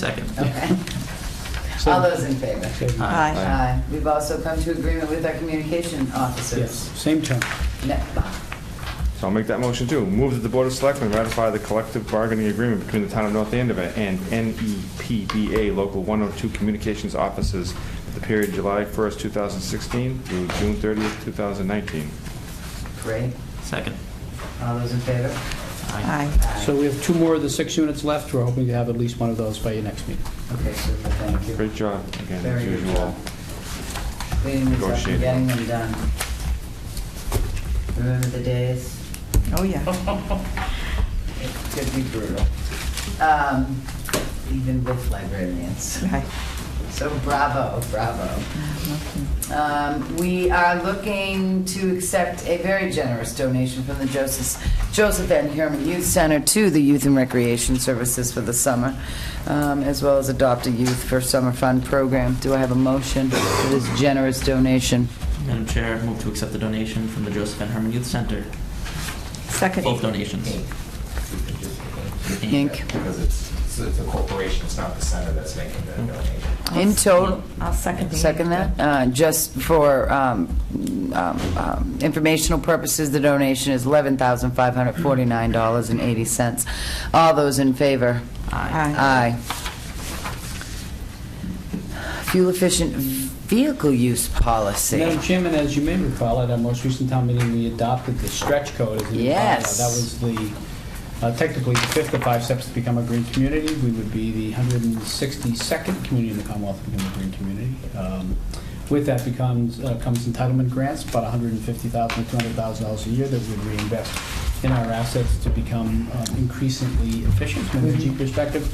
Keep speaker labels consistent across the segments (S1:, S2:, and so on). S1: Second.
S2: Okay. All those in favor?
S1: Aye.
S2: Aye. We've also come to agreement with our communication
S3: Yes,
S2: officers. ah,
S3: same term.
S2: NEPA.
S4: So I'll make that motion too. Move that the Board of Selectmen ratify the collective bargaining agreement between the Town of North Andover and E NEPBA Local 102 Communications Offices for the period July 1st, 2016 through June 30th, 2019.
S2: Great.
S1: Second.
S2: All those in favor?
S1: Aye.
S3: So we have two more of the six units left. We're hoping to have at least one of those by your next meeting.
S2: Okay, super, thank you.
S4: Great job, again, as
S2: Very good
S4: usual.
S2: job. Cleaning these up and
S4: Negotiating.
S2: getting them done. Remember the days?
S5: Oh, yeah.
S2: It could be brutal. Um, Even with librarians.
S5: Right.
S2: So bravo, bravo.
S5: Okay.
S2: Um, We are looking to accept a very generous donation from the Joseph Joseph N. Herman Youth Center to the Youth and Recreation Services for the summer, um, as well as Adopt a Youth for Summer Fund Program. Do I have a motion for this generous donation?
S1: Madam Chair, move to accept the donation from the Joseph N. Herman Youth Center.
S5: Second.
S1: Both donations.
S2: Inc.
S6: Because it's, it's a corporation, it's not the center that's making the donation.
S2: In total,
S5: I'll second.
S2: Second that? Uh, Just for um, um, um, informational purposes, the donation is $11,549.80. All those in favor?
S1: Aye.
S5: Aye.
S2: Aye. Fuel-efficient vehicle use policy.
S3: Madam Chairman, as you may recall, at our most recent town meeting, we adopted the stretch code as a new bylaw.
S2: Yes.
S3: That was the, uh, technically, the fifth of five steps to become a green community. We would be the 162nd community in the Commonwealth to become a green community. Um, With that becomes, uh, comes entitlement grants, about $150,000, to $200,000 a year that we reinvest in our assets to become um, increasingly efficient from an energy perspective.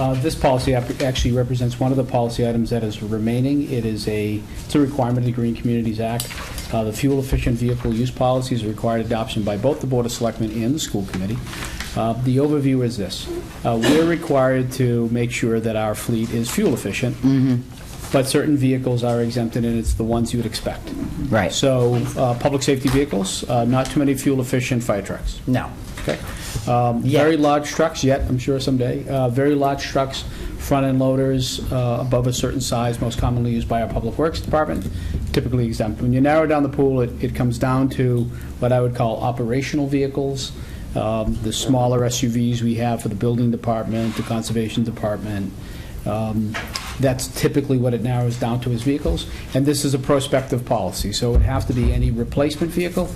S3: Uh, This policy ap- actually represents one of the policy items that is remaining. It is a, it's a requirement of the Green Communities Act. Uh, The fuel-efficient vehicle use policy is required adoption by both the Board of Selectmen and the school committee. Uh, The overview is this. Uh, We're required to make sure that our fleet is fuel-efficient, but certain vehicles are exempted, and it's the ones you would expect.
S2: Right.
S3: So, uh, public safety vehicles, uh, not too many fuel-efficient fire trucks.
S2: No.
S3: Okay. Um, Very large trucks, yet, I'm sure someday, Uh, very large trucks, front-end loaders uh, above a certain size, most commonly used by our Public Works Department, typically exempt. When you narrow down the pool, it it comes down to what I would call operational vehicles, um, the smaller SUVs we have for the Building Department, the Conservation Department. Um, That's typically what it narrows down to as vehicles, and this is a prospective policy, so it would have to be any replacement vehicle.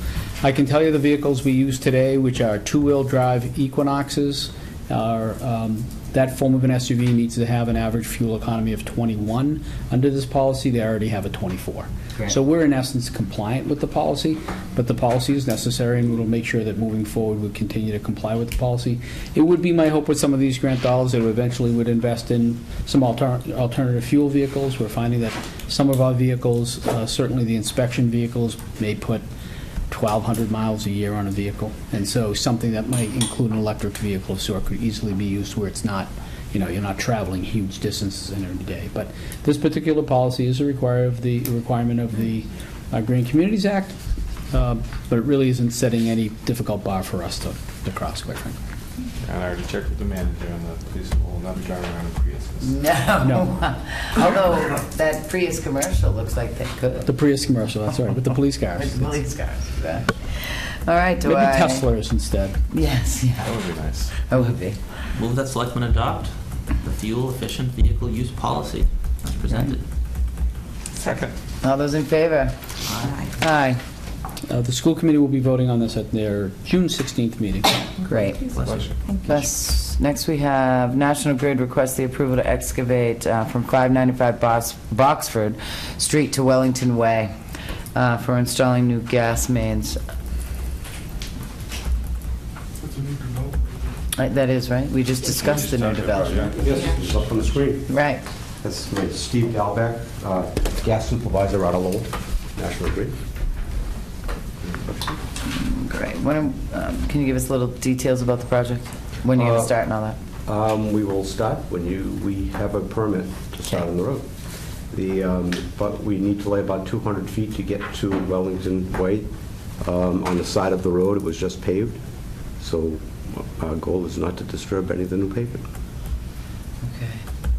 S3: I can tell you the vehicles we use today, which are two-wheel-drive Equinoxes, are, um, that form of an SUV needs to have an average fuel economy of 21. Under this policy, they already have a 24. So we're in essence compliant with the policy, but the policy is necessary, and we'll make sure that moving forward, we continue to comply with the policy. It would be my hope with some of these grant dollars that eventually would invest in some alter- alternative fuel vehicles. We're finding that some of our vehicles, uh, certainly the inspection vehicles, may put 1,200 miles a year on a vehicle. And so something that might include an electric vehicle of sort could easily be used where it's not, you know, you're not traveling huge distances in every day. But this particular policy is a require of the, a requirement of the uh, Green Communities Act, um, but it really isn't setting any difficult bar for us to, to cross, quite frankly.
S4: And I already checked with the manager and the police will not be driving around in Priuses.
S2: No.
S3: No.
S2: Although that Prius commercial looks like they could.
S3: The Prius commercial, that's right, with the police cars.
S2: With police cars. yeah. All right, do
S3: Maybe
S2: I?
S3: Teslas instead.
S2: Yes, yeah,
S4: That would be nice.
S2: it would be.
S1: Move that selectmen adopt the fuel-efficient vehicle use policy as presented.
S5: Second.
S2: All those in favor?
S5: Aye.
S2: Aye.
S3: Uh, The school committee will be voting on this at their June 16th meeting.
S2: Great.
S1: Bless you.
S2: Yes. Next, we have National Grid requests the approval to excavate uh, from 595 Bos- Boxford Street to Wellington Way uh, for installing new gas mains. Uh, That is, right? We just discussed the new development.
S7: Yes, it's up on the screen.
S2: Right.
S7: That's with Steve Dalbeck, uh, gas supervisor out of Lowell, National Grid.
S2: Great. When, um, Can you give us little details about the project? When you're going
S7: Uh,
S2: to start and all that?
S7: Um, We will start when you, we have a permit to start on the road. The, um, but we need to lay about 200 feet to get to Wellington Way. Um, On the side of the road, it was just paved, so our goal is not to disturb any of the new pavement.